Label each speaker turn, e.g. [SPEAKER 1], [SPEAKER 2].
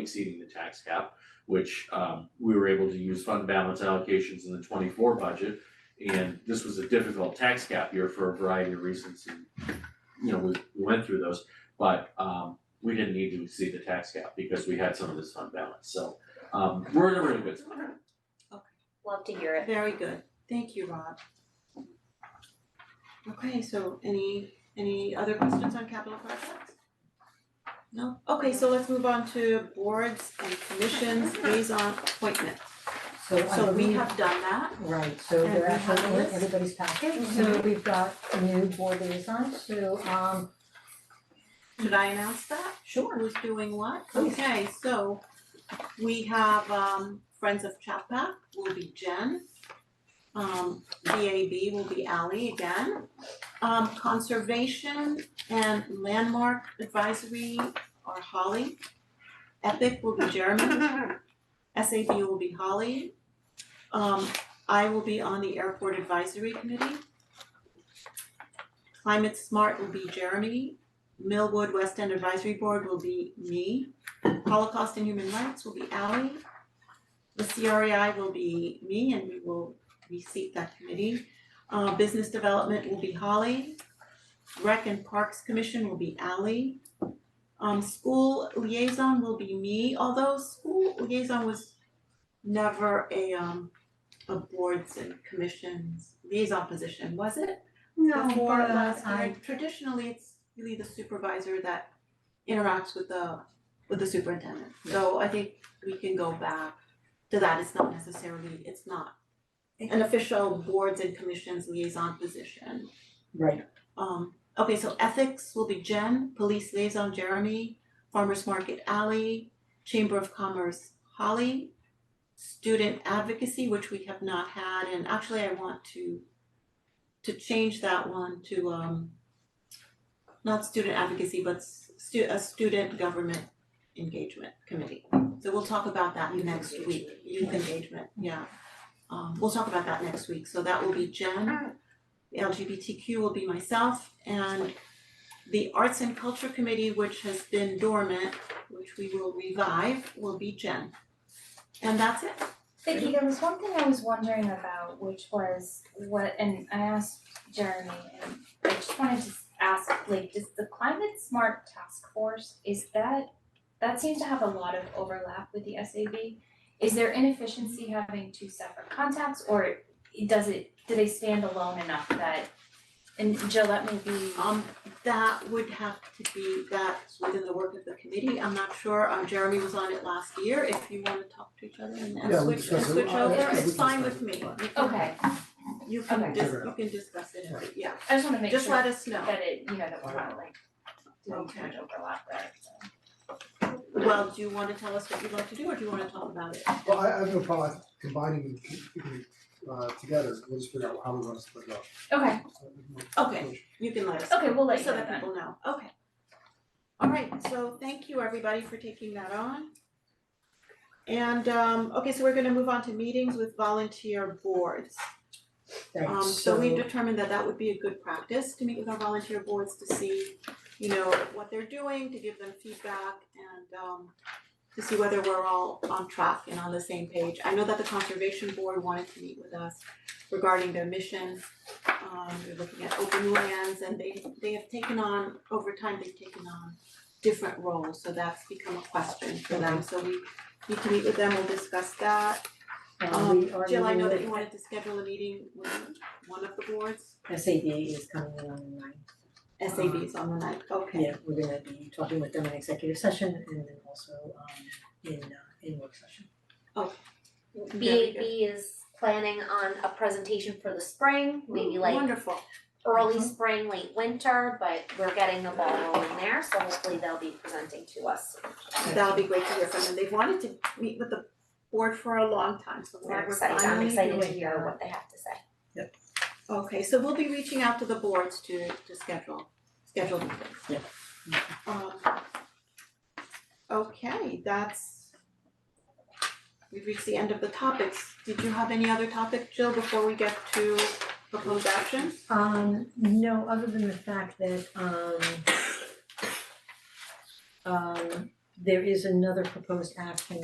[SPEAKER 1] exceeding the tax cap, which um we were able to use fund balance allocations in the twenty-four budget. And this was a difficult tax cap year for a variety of reasons and, you know, we we went through those. But um we didn't need to exceed the tax cap because we had some of this fund balance, so um we're in a really good spot.
[SPEAKER 2] Love to hear it.
[SPEAKER 3] Very good, thank you, Rob. Okay, so any, any other questions on capital projects? No, okay, so let's move on to boards and commissions liaison appointment.
[SPEAKER 4] So I
[SPEAKER 3] So we
[SPEAKER 4] believe-
[SPEAKER 3] have done that,
[SPEAKER 4] right, so
[SPEAKER 3] And
[SPEAKER 4] they're
[SPEAKER 3] we have
[SPEAKER 4] actually in
[SPEAKER 3] this.
[SPEAKER 4] everybody's package, so we've got a new board liaison, so um,
[SPEAKER 3] should I announce that?
[SPEAKER 4] sure,
[SPEAKER 3] Who's doing what?
[SPEAKER 4] Please.
[SPEAKER 3] Okay, so we have um Friends of Chapac will be Jen. Um VAB will be Ally again. Um Conservation and Landmark Advisory are Holly. Epic will be Jeremy. SAB will be Holly. Um I will be on the Airport Advisory Committee. Climate Smart will be Jeremy. Millwood West End Advisory Board will be me. Holocaust and Human Rights will be Ally. The CREI will be me and we will reseat that committee. Uh, Business Development will be Holly. Rec and Parks Commission will be Ally. Um, School Liaison will be me, although School Liaison was never a um a boards and commissions liaison position, was it?
[SPEAKER 4] no,
[SPEAKER 3] before
[SPEAKER 4] but uh,
[SPEAKER 3] last
[SPEAKER 4] I
[SPEAKER 3] year, traditionally, it's really the supervisor that interacts with the with the superintendent. So I think we can go back to that, it's not necessarily, it's not an official boards and commissions liaison position.
[SPEAKER 4] Right,
[SPEAKER 3] Um, okay, so ethics will be Jen, police liaison Jeremy, farmers market Ally, chamber of commerce Holly, student advocacy, which we have not had, and actually I want to to change that one to um not student advocacy, but stu- a student government engagement committee. So we'll talk about that
[SPEAKER 4] Youth
[SPEAKER 3] next week,
[SPEAKER 4] engagement.
[SPEAKER 3] youth engagement, yeah. Um, we'll talk about that next week, so that will be Jen. The LGBTQ will be myself and the Arts and Culture Committee, which has been dormant, which we will revive, will be Jen. And that's it.
[SPEAKER 5] Vicky, there was one thing I was wondering about, which was what, and I asked Jeremy, and I just wanted to ask, like, does the climate smart task force, is that, that seems to have a lot of overlap with the SAB? Is there inefficiency having two separate contacts, or does it, do they stand alone enough that, and Jill, that may be,
[SPEAKER 3] Um, that would have to be, that's within the work of the committee, I'm not sure, um, Jeremy was on it last year, if you wanna talk to each other and and
[SPEAKER 6] Yeah,
[SPEAKER 3] switch, and
[SPEAKER 6] we discussed it.
[SPEAKER 3] switch
[SPEAKER 6] Uh,
[SPEAKER 3] over,
[SPEAKER 5] yeah, we
[SPEAKER 3] it's fine with
[SPEAKER 6] discussed
[SPEAKER 3] me,
[SPEAKER 6] it.
[SPEAKER 3] you can-
[SPEAKER 5] okay,
[SPEAKER 3] you can
[SPEAKER 5] Okay.
[SPEAKER 3] dis-
[SPEAKER 6] Figure it
[SPEAKER 3] you
[SPEAKER 6] out.
[SPEAKER 3] can discuss it, if- yeah,
[SPEAKER 5] I just wanna make
[SPEAKER 3] just
[SPEAKER 5] sure
[SPEAKER 3] let us know.
[SPEAKER 5] that it, you know, that we're not like doing too
[SPEAKER 3] Okay.
[SPEAKER 5] much overlap there, so.
[SPEAKER 3] Well, do you wanna tell us what you'd like to do, or do you wanna talk about it?
[SPEAKER 6] Well, I I have no problem combining them uh together, we'll just figure out how we wanna split it up.
[SPEAKER 5] Okay,
[SPEAKER 3] Okay, you can let us know.
[SPEAKER 5] okay, we'll let you
[SPEAKER 3] so
[SPEAKER 5] know
[SPEAKER 3] that
[SPEAKER 5] then.
[SPEAKER 3] people know, okay. All right, so thank you everybody for taking that on. And um, okay, so we're gonna move on to meetings with volunteer boards. Um,
[SPEAKER 4] thanks,
[SPEAKER 3] so
[SPEAKER 4] so
[SPEAKER 3] we've determined that that would be a good practice to meet with our volunteer boards to see, you know, what they're doing, to give them feedback and um to see whether we're all on track and on the same page. I know that the conservation board wanted to meet with us regarding their mission. Um, they're looking at open lands and they they have taken on, over time, they've taken on different roles, so that's become a question for them. So we need to meet with them, we'll discuss that.
[SPEAKER 4] and
[SPEAKER 3] Um,
[SPEAKER 4] we are
[SPEAKER 3] Jill, I know that you
[SPEAKER 4] meeting
[SPEAKER 3] wanted to schedule a meeting with one of the boards,
[SPEAKER 4] with SAB is coming in on the ninth.
[SPEAKER 3] SAB is on the night, okay.
[SPEAKER 4] Yeah, we're gonna be talking with them in executive session and then also um in uh in work session.
[SPEAKER 3] Very good.
[SPEAKER 2] BAB is planning on a presentation for the spring, maybe like
[SPEAKER 3] Wonderful,
[SPEAKER 2] early spring, late winter, but we're getting the ball rolling there, so hopefully they'll be presenting to us.
[SPEAKER 3] that'll be great to hear from them, they've wanted to meet with the board for a long time, so
[SPEAKER 2] We're
[SPEAKER 3] we're we're
[SPEAKER 2] excited, I'm
[SPEAKER 3] finally
[SPEAKER 2] excited to
[SPEAKER 3] doing
[SPEAKER 2] hear
[SPEAKER 3] that.
[SPEAKER 2] what they have to say.
[SPEAKER 3] Okay, so we'll be reaching out to the boards to to schedule, schedule meetings.
[SPEAKER 4] Yeah.
[SPEAKER 3] Um okay, that's we've reached the end of the topics, did you have any other topic, Jill, before we get to proposed action?
[SPEAKER 4] Um, no, other than the fact that um um there is another proposed action